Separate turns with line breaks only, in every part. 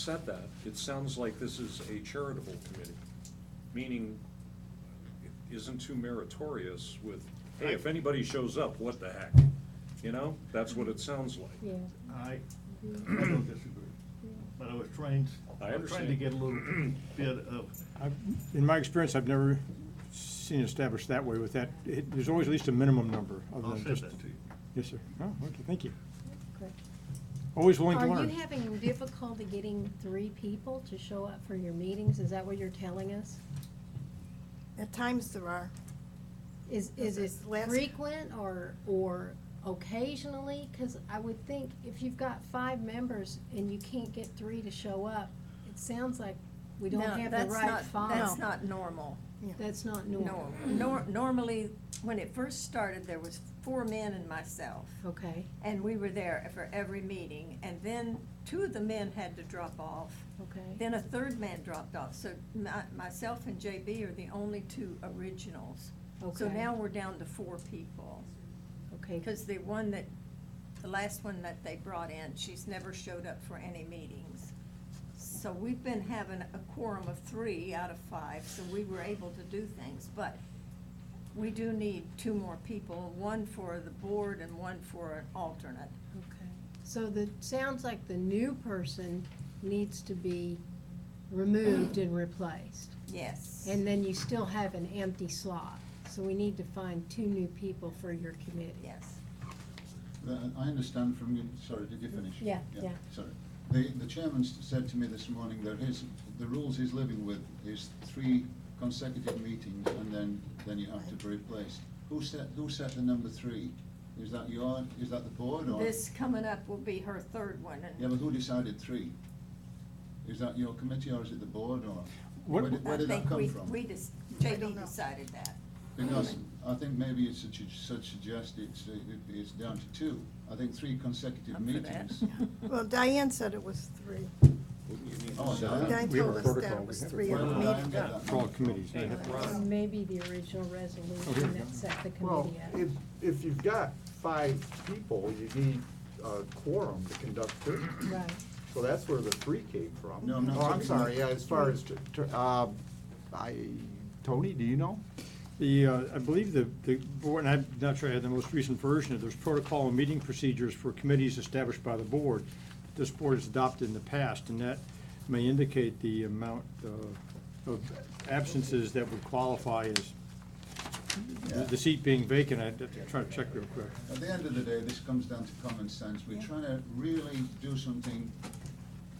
said that, it sounds like this is a charitable committee, meaning it isn't too meritorious with, hey, if anybody shows up, what the heck? You know, that's what it sounds like.
Yeah,
I, I don't disagree, but I was trying,
I
I was trying to
understand.
get a little bit of,
I've- In my experience, I've never seen it established that way with that. It- There's always at least a minimum number other
I'll
than
send
just.
that to you.
Yes, sir. Oh, okay, thank you.
correct.
Always willing to
Are
learn.
you having difficulty getting three people to show up for your meetings? Is that what you're telling us?
At times there are.
Is, is it
This is last-
frequent or, or occasionally? Because I would think if you've got five members and you can't get three to show up, it sounds like we don't
No,
have the
that's
right
not-
five.
That's not normal.
That's not normal.
Nor, nor, normally, when it first started, there was four men and myself,
Okay,
and we were there for every meeting, and then two of the men had to drop off.
okay.
Then a third man dropped off, so my, myself and JB are the only two originals. So
Okay.
now we're down to four people,
Okay,
because the one that, the last one that they brought in, she's never showed up for any meetings. So we've been having a quorum of three out of five, so we were able to do things, but we do need two more people, one for the board and one for an alternate.
Okay, so the, sounds like the new person needs to be removed and replaced.
Yes.
And then you still have an empty slot, so we need to find two new people for your committee.
Yes.
Uh, I understand from, you- sorry, did you finish?
Yeah, yeah.
Sorry. The, the chairman s- said to me this morning that his, the rules he's living with is three consecutive meetings and then, then you have to be replaced. Who set, who set the number three? Is that your, is that the board or?
This coming up will be her third one,
Yeah,
and
but who decided three? Is that your committee or is it the board or?
What-
Where did, where
I
did that
think
come
we,
from?
we just,
I don't
JB
know.
decided that.
Because I think maybe it's such, such suggest it's, uh, it- it's down to two. I think three consecutive
I'm for that.
meetings.
Well, Diane said it was three.
Oh, Diane.
Diane
We have a
told us that
protocol.
it was
We have a
three at the
protocol.
meeting.
Yeah. Yeah.
For all committees. they have-
And Maybe the original
Okay.
resolution that set the
Well, if,
committee up.
if you've got five people, you need a quorum to conduct business.
Right,
So that's where the three came from.
No, I'm not
Oh, I'm
talking
sorry, yeah,
about-
as far as, tr- tr- uh, I, Tony, do you know?
The, uh, I believe the, the board, and I'm not sure I had the most recent version, there's protocol and meeting procedures for committees established by the board. This board has adopted in the past, and that may indicate the amount uh, of absences that would qualify as the- the seat being vacant. I'd have to try to check real quick.
At the end of the day, this comes down to common sense. We're trying to really do something,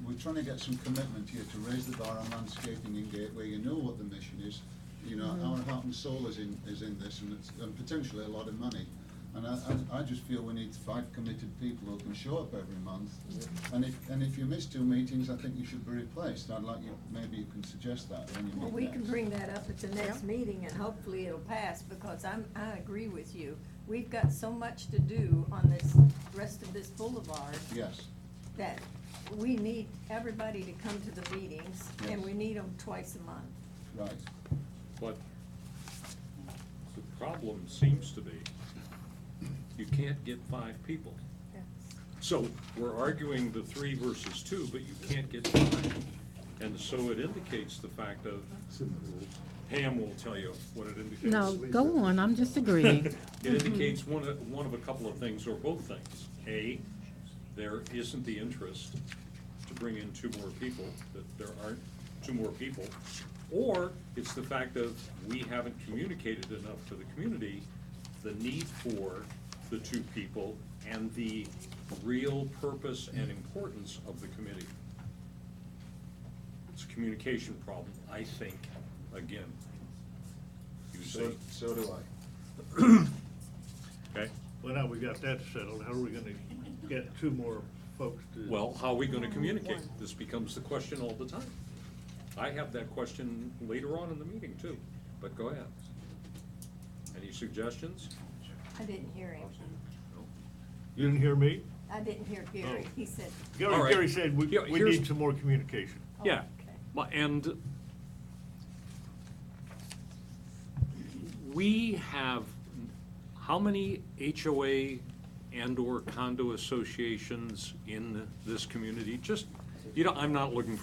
we're trying to get some commitment here to raise the bar on landscaping in Gateway. You know what the mission is, you know,
Mm-hmm.
our heart and soul is in, is in this, and it's, and potentially a lot of money. And I, I, I just feel we need five committed people who can show up every month. And if, and if you miss two meetings, I think you should be replaced. I'd like you, maybe you can suggest that when you meet
Well, we can
next.
bring that up at the next meeting and hopefully it'll pass because I'm, I agree with you. We've got so much to do on this, rest of this boulevard
Yes,
that we need everybody to come to the meetings and
Yes.
we need them twice a month.
right.
But the problem seems to be, you can't get five people. So we're arguing the three versus two, but you can't get five. And so it indicates the fact of, Pam will tell you what it indicates.
No, go on, I'm just agreeing.
It indicates one of, one of a couple of things, or both things. A, there isn't the interest to bring in two more people, that there aren't two more people. Or it's the fact of, we haven't communicated enough to the community, the need for the two people and the real purpose and importance of the committee. It's a communication problem, I think, again. You
So,
say,
so do I.
okay?
Well, now we got that settled, how are we gonna get two more folks to?
Well, how are we gonna communicate? This becomes the question all the time. I have that question later on in the meeting too, but go ahead. Any suggestions?
I didn't hear him.
You didn't hear me?
I didn't hear Gary.
Oh.
He said,
All right.
Gary, Gary said we,
Here-
we
here's-
need some more communication.
Oh,
Yeah,
okay.
my- and we have, how many HOA and/or condo associations in this community? Just You know, I'm not looking